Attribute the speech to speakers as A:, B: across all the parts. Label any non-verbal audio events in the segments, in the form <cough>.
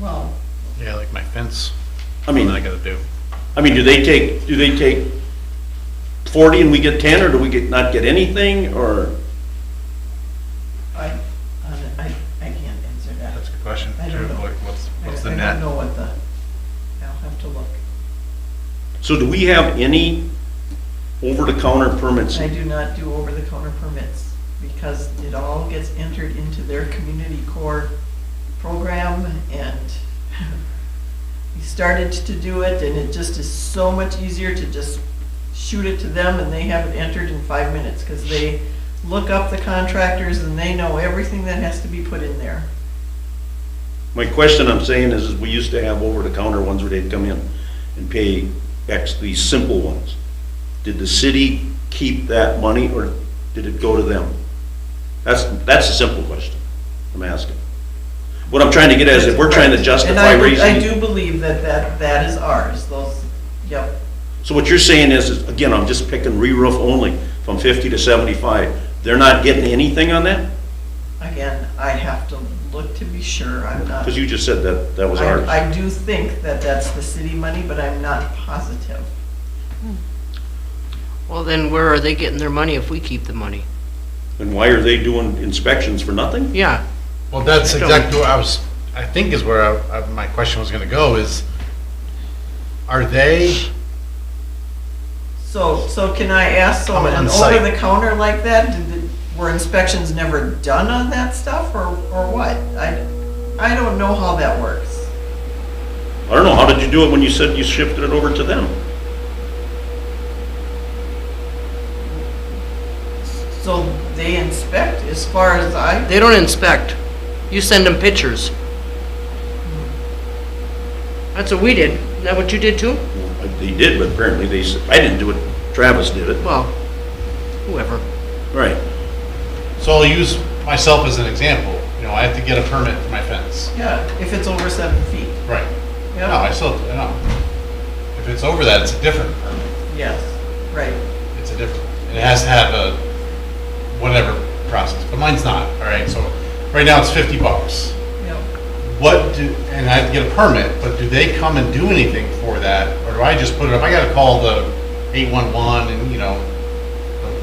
A: well,
B: Yeah, like my fence.
C: I
B: What
C: mean,
B: am I gotta do?
C: I mean, do they take, do they take forty and we get ten, or do we get, not get anything, or?
A: I, I, I I can't answer that.
B: That's a good question.
A: I
B: too,
A: don't know.
B: Like, what's,
A: I
B: what's
A: don't-
B: the
A: I don't
B: net?
A: know what the, I'll have to look.
C: So do we have any over-the-counter permits?
A: I do not do over-the-counter permits because it all gets entered into their community core program and <laughs> we started to do it and it just is so much easier to just shoot it to them and they have it entered in five minutes because they look up the contractors and they know everything that has to be put in there.
C: My question I'm saying is, is we used to have over-the-counter ones where they'd come in and pay X, these simple ones. Did the city keep that money, or did it go to them? That's, that's a simple question I'm asking. What I'm trying to get at is if we're trying to
A: And I
C: justify
A: would-
C: raising.
A: I do believe that that, that is ours, those, yep.
C: So what you're saying is, is, again, I'm just picking re-roof only, from 50 to 75, they're not getting anything on that?
A: Again, I have to look to be sure, I'm not.
C: Because you just said that, that was
A: I-
C: ours.
A: I do think that that's the city money, but I'm not positive.
D: Well, then where are they getting their money if we keep the money?
C: And why are they doing inspections for nothing?
D: Yeah,
B: Well, that's
D: I don't-
B: exactly what I was, I think is where I, I- my question was gonna go is, are they,
A: So, so can I ask, so
B: Coming on
A: an
B: site.
A: over-the-counter like that, did, the- were inspections never done on that stuff, or, or what? I, I don't know how that works.
C: I don't know, how did you do it when you said you shifted it over to them?
A: So they inspect, as far as I,
D: they don't inspect. You send them pictures. That's what we did. Is that what you did too?
C: Well, They did, but apparently they, s- I didn't do it, Travis did it.
D: Well, whoever.
C: Right.
B: so I'll use myself as an example. You know, I have to get a permit for my fence.
A: yeah, if it's over seven feet,
B: Right. No, I
A: yeah,
B: still, no. If it's over that, it's a different permit.
A: yes, right.
B: It's a different, it has to have a whatever process, but mine's not, all right? So right now it's 50 bucks.
A: Yep.
B: What do, and I have to get a permit, but do they come and do anything for that? Or do I just put it up, I gotta call the 811 and, you know,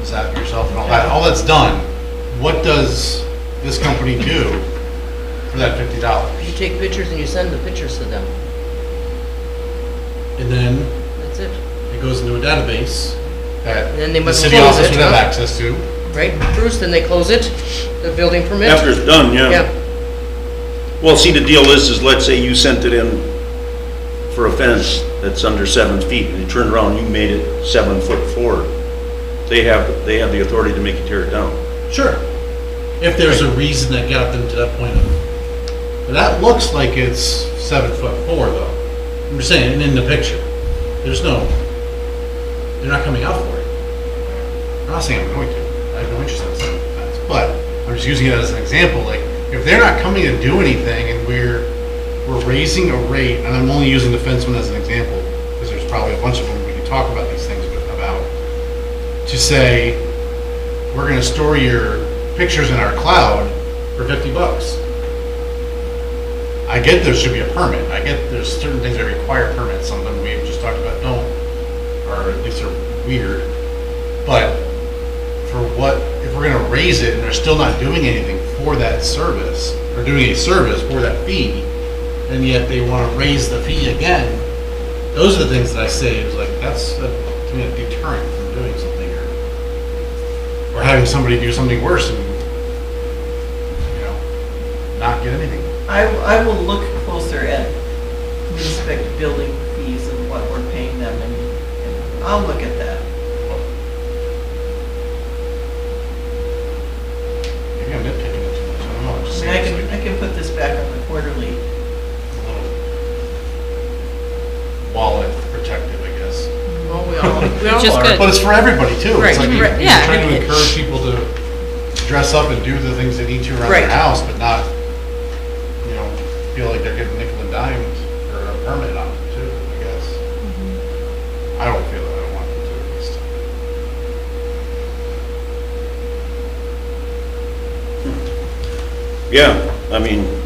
B: is that yourself and all that, all that's done. What does this company do for that $50?
D: You take pictures and you send the pictures to them.
B: And then
D: That's it.
B: it goes into a database that
D: Then they
B: the
D: must
B: city
D: close
B: office
D: it,
B: would have
D: huh?
B: access to.
D: Right, Bruce? Then they close it, the building permit?
C: After it's done,
D: Yeah.
C: yeah. Well, see, the deal is, is let's say you sent it in for a fence that's under seven feet, and you turned around, you made it seven foot four. They have, they have the authority to make you tear it down.
B: Sure. If there's a reason that got them to that point of, but that looks like it's seven foot four though. I'm just saying, in the picture, there's no, they're not coming out for it. I'm not saying I'm going to, I have no interest in seven foot fence, but I'm just using it as an example, like, if they're not coming to do anything and we're, we're raising a rate, and I'm only using the fence one as an example, because there's probably a bunch of them we can talk about these things with- about, to say, we're gonna store your pictures in our cloud for fifty bucks. I get there should be a permit, I get there's certain things that require permits, something we've just talked about don't, or at least are weird. But for what, if we're gonna raise it and they're still not doing anything for that service, or doing a service for that fee, and yet they wanna raise the fee again, those are the things that I say, is like, that's a, to me, a deterrent from doing something or or having somebody do something worse and, you know, not get anything.
A: I, I will look closer at inspect building fees and what we're paying them, and- and I'll look at that.
B: Maybe I'm nitpicking it too much, I don't know, I'm just
A: I mean, I
B: saying.
A: can,
B: it's
A: I
B: like
A: can put this back on the quarterly.
B: a little Wallet protective, I guess.
D: Well, we all, we all
E: Which is
D: are.
E: good.
B: But it's for everybody too.
D: Right,
B: It's like,
D: right,
B: you're
E: yeah.
B: trying to encourage people to dress up and do the things they need to around their
D: Right.
B: house, but not, you know, feel like they're getting nickel and dimed or a permit on it too, I guess. I don't feel that, I don't want them to at least.
C: Yeah, I mean,